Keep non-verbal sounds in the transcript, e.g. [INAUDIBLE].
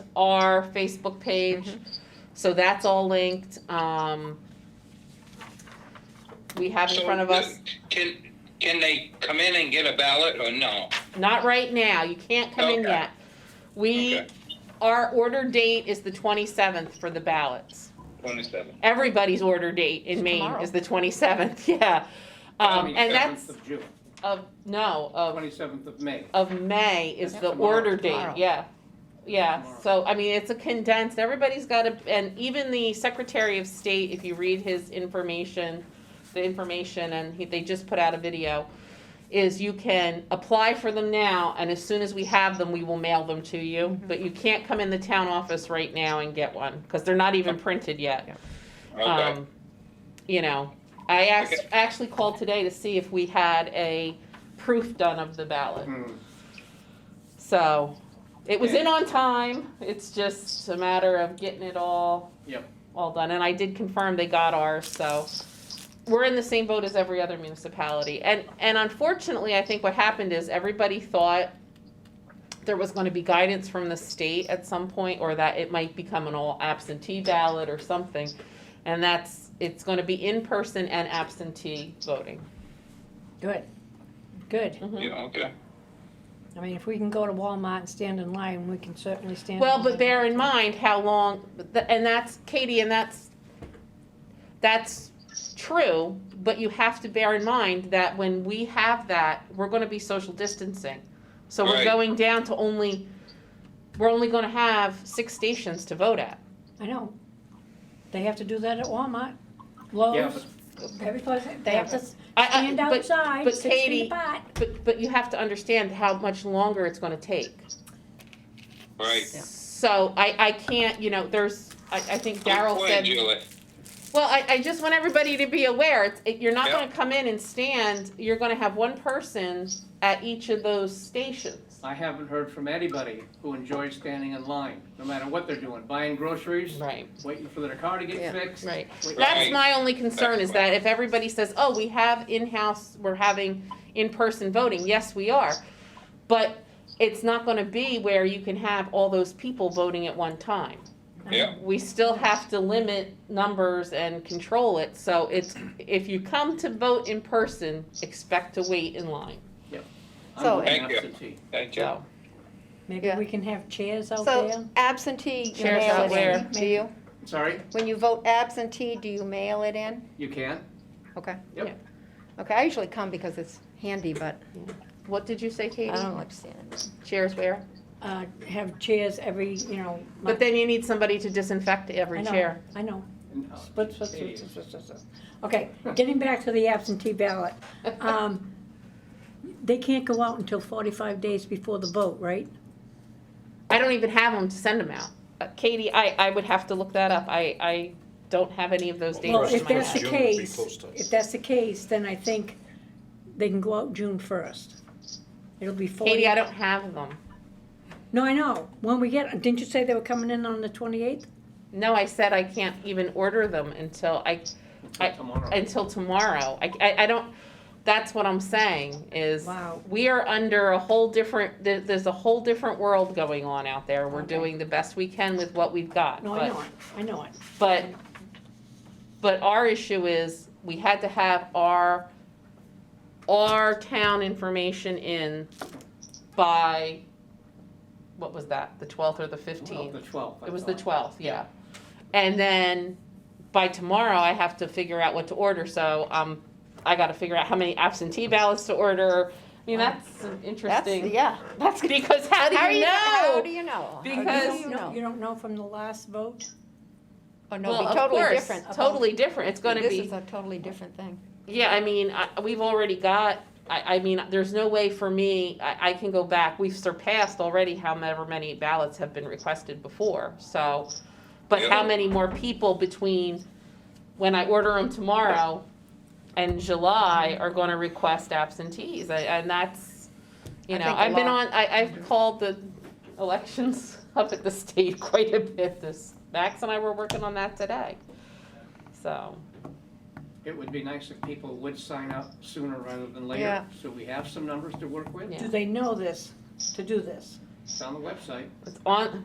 our Facebook page. So that's all linked. Um, we have in So front of us, Can, can they come in and get a ballot or no? not right now, you can't come in Okay. yet. We, Okay. our order date is the twenty-seventh for the ballots. Twenty-seven. Everybody's order date in Maine tomorrow. is the twenty-seventh, [LAUGHS] yeah. Um, and that's Oh. 27th of June, of, no, of 27th of May. of May is the Tomorrow. order date, Tomorrow. yeah. Yeah, Tomorrow. so, I mean, it's a condensed, everybody's got a, and even the Secretary of State, if you read his information, the information, and he, they just put out a video, is you can apply for them now, and as soon as we have them, we will mail them to you. But you can't come in the town office right now and get one, because they're not even printed yet. Okay. Um, you know, I asked, actually called today to see if we had a proof done of the ballot. Hmm. So it was in Okay. on time. It's just a matter of getting it all Yep. all done. And I did confirm they got ours, so we're in the same boat as every other municipality. And and unfortunately, I think what happened is everybody thought there was going to be guidance from the state at some point or that it might become an all absentee ballot or something. And that's it's going to be in person and absentee voting. Good, good. Mhm. Yeah, okay. I mean, if we can go to Walmart and stand in line, we can certainly stand. Well, in but line. bear in mind how long, and that's, Katie, and that's, that's true, but you have to bear in mind that when we have that, we're gonna be social distancing. So we're Right. going down to only, we're only gonna have six stations to vote at. I know. They have to do that at Walmart, Oh. Yeah, Lowe's, but every place, they have to s- I, I, stand but, outside, but six feet Katie- apart. but, but you have to understand how much longer it's gonna take. Right. So I, I can't, you know, there's, I, I think Good Daryl point, said. Julie. Well, I, I just want everybody to be aware, it's, it, you're not Yeah. gonna come in and stand, you're gonna have one person at each of those stations. I haven't heard from anybody who enjoys standing in line, no matter what they're doing, buying groceries, Right, waiting for their car to Yeah, get fixed. right. wait- That's Right. my only concern, That's is that if everybody says, oh, we have in-house, we're having in-person voting, yes, we are. But it's not gonna be where you can have all those people voting at one time. Yeah. we still have to limit numbers and control it, so it's, if you come to vote in person, expect to wait in line, I'm So- voting Thank you. absentee. Thank you. so. Maybe Yeah. we can have chairs out So- there. Absentee, you Shares mail out it where? in, do you? Sorry, When you vote absentee, do you mail it in? you can? Okay. Yep. Okay, I usually come because it's handy, but What did you say, I Katie? don't like standing. Chairs where? Uh, have chairs every, you know. But then you need somebody to disinfect every I know, [LAUGHS] chair. I know. And, uh, Split, split, split, Katie. split, split, split. Okay, getting back to the absentee ballot. Um, They can't go out until 45 days before the vote, right? I don't even have them to send them out. Uh, Katie, I, I would have to look that up. I, I don't have any of those Well, dates in if my that's the head. June would be case, close to us. if that's the case, then I think they can go out June 1st. It'll be 40. Katie, I don't have them. No, I know. When we get, didn't you say they were coming in on the 28th? No, I said I can't even order them until I, Until I- tomorrow. until tomorrow. I, I, I don't, that's what I'm saying is Wow. we are under a whole different, there, there's a whole different world going on out there. We're Okay. doing the best we can with what we've got. No, but- I know it. I know it. But, but our issue is, we had to have our, our town information in by, what was that, the twelfth or the Well, fifteenth? The 12th. I It was the thought. twelfth, yeah. And then by tomorrow, I have to figure out what to order, so, um, I gotta figure out how many absentee ballots to order. I mean, that's an That's, interesting, yeah. [LAUGHS] that's, because how do you How do know? you know? How do You Because- don't you know- know? You don't know from the last vote? Oh, no, Well, it'd of be totally course, different. totally different, it's gonna be. This is a totally different thing. Yeah, I mean, I, we've already got, I, I mean, there's no way for me, I, I can go back, we've surpassed already however many ballots have been requested before, so. But how Yeah. many more people between when I order them tomorrow and July are gonna request absentees, I- and that's, you I know, think a I've been lot. on, I, I've called the elections [LAUGHS] up at the state quite a bit this, Max and I were working on that today, so. It would be nice if people would sign up sooner rather than later, Yeah. so we have some numbers to work with. Yeah. Do they know this, to do this? It's on the website. It's on,